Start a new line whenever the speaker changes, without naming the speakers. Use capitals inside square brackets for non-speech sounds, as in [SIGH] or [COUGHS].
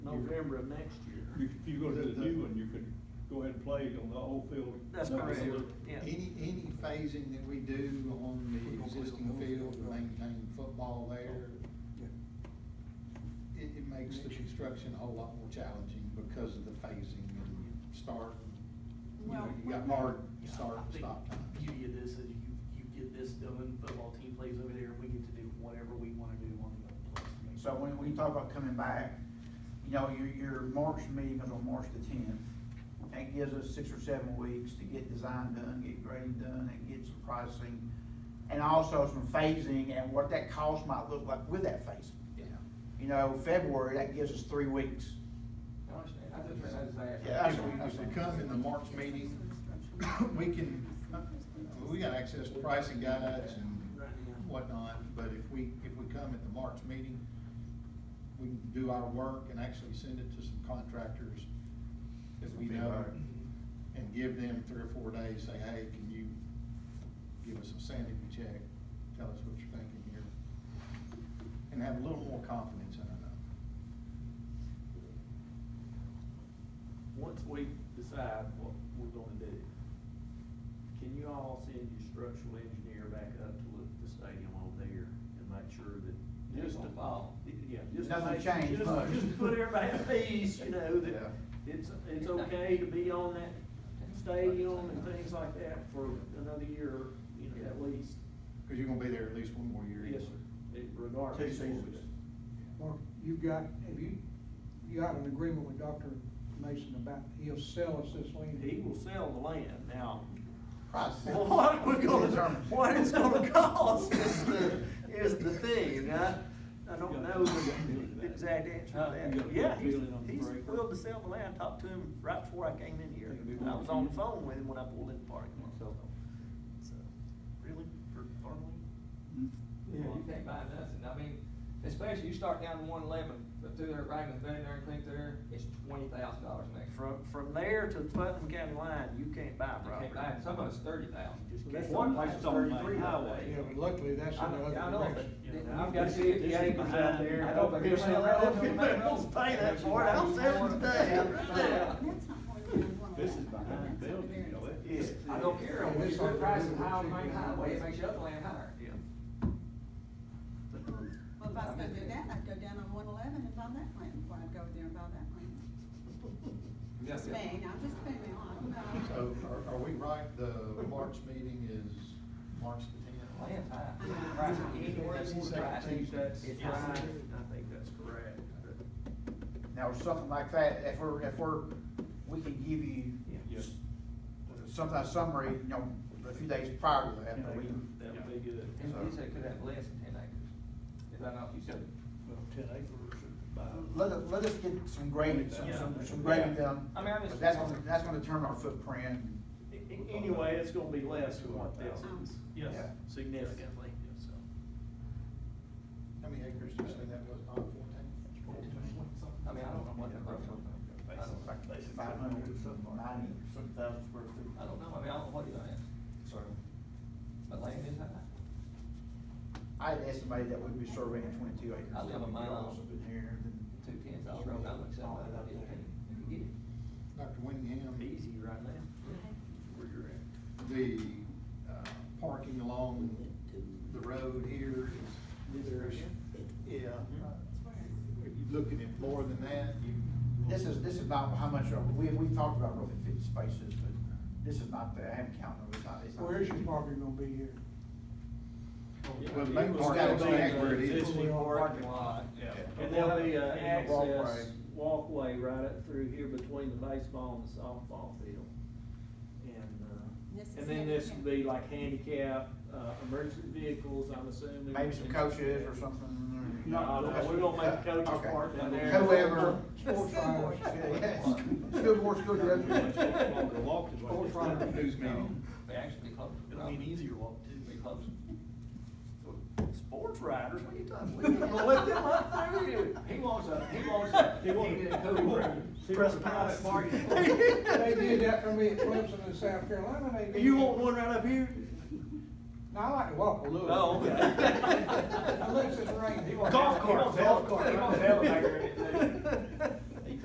November of next year.
You, if you go to the new one, you could go ahead and play it on the old field.
That's
Another
correct,
field.
yeah.
Any, any phasing that we do on the existing field to maintain football there, it, it makes the construction a whole lot more challenging because of the phasing and start. You know,
Well,
you got
we're-
hard
Yeah,
start
I
and
think
stop
the
times.
Beauty of this is you, you get this done, football team plays over there, we get to do whatever we wanna do on the other place.
So when we talk about coming back, you know, your, your March meeting is on March the tenth. That gives us six or seven weeks to get design done, get grading done, and get some pricing, and also some phasing and what that cost might look like with that phasing.
Yeah.
You know, February, that gives us three weeks.
I understand. I just decided to ask.
Yeah,
If we- If we come in the March meeting, [COUGHS] we can, uh, we got access to pricing guides and whatnot, but if we, if we come at the March meeting, we can do our work and actually send it to some contractors that we know and give them three or four days, say, hey, can you give us a sanity check? Tell us what you're thinking here. And have a little more confidence in it.
Once we decide what we're gonna do, can you all send your structural engineer back up to look at the stadium over there and make sure that?
Just to follow.
Yeah. just to
Nothing
make-
changed
just-
much.
Just to put everybody at peace, you know,
Yeah.
that it's, it's okay to be on that stadium and things like that for another year, you know, at least.
Cause you're gonna be there at least one more year.
Yes, sir, It- regardless.
Two seasons.
Mark, you've got, have you, you got an agreement with Dr. Mason about he'll sell us this land?
He will sell the land now.
Price.
Well, What we're gonna,
Determine.
what it's gonna cost [LAUGHS] is the, is the thing, and I, I don't know the exact answer to that. Yeah, he's, he's willing to sell the land, I talked to him right before I came in here, I was on the phone with him when I pulled in the parking lot, so. so, Really, for farmland?
Yeah, you can't buy nothing, I mean, especially you start down to one eleven, but through there, right in the veterinary clinic there, it's twenty thousand dollars an acre.
From, from there to the Putnam County line, you can't buy
You
property.
can't buy it, some of it's thirty thousand.
You just
Well, that's
can't.
one
place on the main
Thirty-three
highway.
Yeah, but luckily, that's
I
in
know,
the
I
other
know, but
direction.
I've got fifty acres out there. I don't think they'll let them make those
Pay that for it, I'll sell it today, I'm
Yeah.
This is behind the building, you know, it is.
I don't care, [LAUGHS] when you put prices high on the main highway, it makes your other land higher.
Yeah.
Well, if I was gonna do that, I'd go down on one eleven and buy that land before I'd go over there and buy that land. Just me, now, just put me on,
So
Oh,
no.
are, are we right, the March meeting is March the tenth?
Land high, price of anywhere you want to price it.
that's
It's
right.
high.
I think that's correct.
Now, something like that, if we're, if we're, we can give you
Yeah.
s- some, a summary, you know, a few days prior to that, but we.
That would be good.
And you said it could have less than ten acres, is that not, you said?
Well, ten acres is
uh,
about-
Let, us- let us get some grading, some, some, some grading done.
I mean, I'm just-
But That's gonna, that's gonna determine our footprint.
A- a- Anyway, it's gonna be less than what this is.
Yes.
Yeah.
Significantly, so.
How many acres did you say that was, Bob, fourteen?
I mean, I don't know what the road I don't,
Five hundred, ninety, some thousand square feet.
I don't know, I mean, I don't know what you're gonna ask,
So,
but land is high.
I had estimated that we'd be surveying twenty-two acres.
I live a mile off of
in here,
Two tens, I'll roll, I'll accept that, I'll be okay, if you get it.
Dr. Winningham,
Easy right now. Where you're at.
the, uh, parking along the road here is. there's- Yeah.
Mm-hmm.
Are you looking at more than that?
This is, this is not how much, we, we talked about roughly fifty spaces, but this is not, the- I haven't counted, them. it's not, it's not.
Where is your property gonna be here?
Well, the main part gotta stay where it is.
Existing parking lot.
Yeah.
And there'll be a
And the walkway.
access walkway right up through here between the baseball and the softball field. And,
This
uh,
is
and then this
handicap.
would be like handicap, uh, emergency vehicles, I'm assuming.
Maybe some coaches or something. or-
No, no, we're gonna make the coaches
Okay.
park down there.
Whoever.
Sports fires. [LAUGHS]
Yes. School board, school director.
Longer walk is what
Sports
it's-
fires.
News meeting.
They actually be close.
It'll be an easier [LAUGHS] walk too.
Be close.
Sports riders, what are you talking about? We're gonna Let them up through here.
He wants a, he wants a, he wants a cool room.
Press
private party.
They did that for
[LAUGHS]
me at Clemson in South Carolina, they did.
You want one right up here?
[LAUGHS]
No, I like to walk a little.
Oh,
[LAUGHS]
okay.
Unless it's raining.
He wants-
Golf
he
cart,
wants
golf
He
cart.
wants elevator in it too.
[LAUGHS]